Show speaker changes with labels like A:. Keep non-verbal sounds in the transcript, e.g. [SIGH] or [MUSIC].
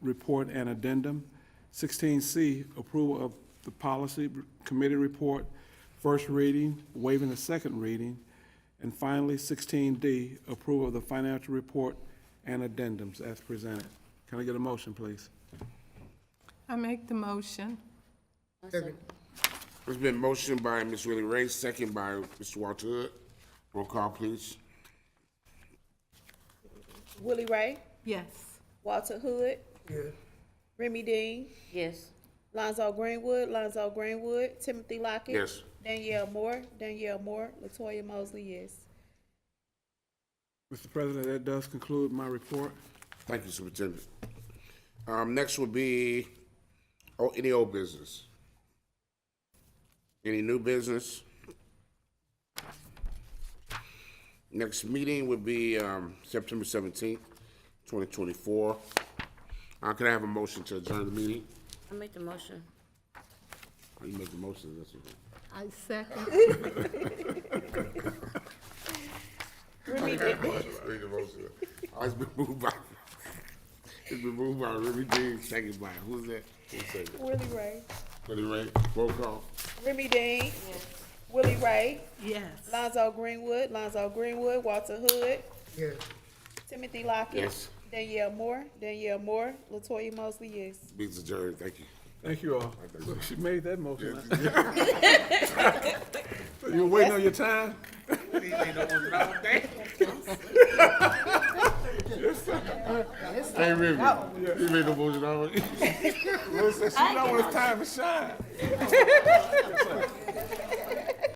A: report and addendum. Sixteen C, approval of the policy committee report, first reading, waiving the second reading. And finally, sixteen D, approval of the financial report and addendums as presented. Can I get a motion, please?
B: I make the motion.
C: There's been motion by Ms. Willie Ray, second by Mr. Walter Hood. Roll call, please.
D: Willie Ray,
B: Yes.
D: Walter Hood. Remy Dean,
E: Yes.
D: Lonzo Greenwood, Lonzo Greenwood, Timothy Lockett.
C: Yes.
D: Danielle Moore, Danielle Moore, Latoya Mosley, yes.
A: Mr. President, that does conclude my report.
C: Thank you, Superintendent. Um, next will be, oh, any old business? Any new business? Next meeting would be, um, September seventeenth, twenty twenty-four. Uh, can I have a motion to adjourn the meeting?
E: I make the motion.
C: How you make the motion? That's okay.
B: I second.
C: [LAUGHS]
D: Remy Dean,
C: Read the motion. Oh, it's been moved by, it's been moved by Remy Dean, second by, who's that? Who's second?
D: Willie Ray,
C: Willie Ray, roll call.
D: Remy Dean. Willie Ray,
B: Yes.
D: Lonzo Greenwood, Lonzo Greenwood, Walter Hood. Timothy Lockett.
C: Yes.
D: Danielle Moore, Danielle Moore, Latoya Mosley, yes.
C: Meeting's adjourned, thank you.
A: Thank you all. She made that motion. [LAUGHS] You were waiting on your time?
C: Hey, Remy, you made the motion [LAUGHS] already?
A: Listen, she know when it's time to shine.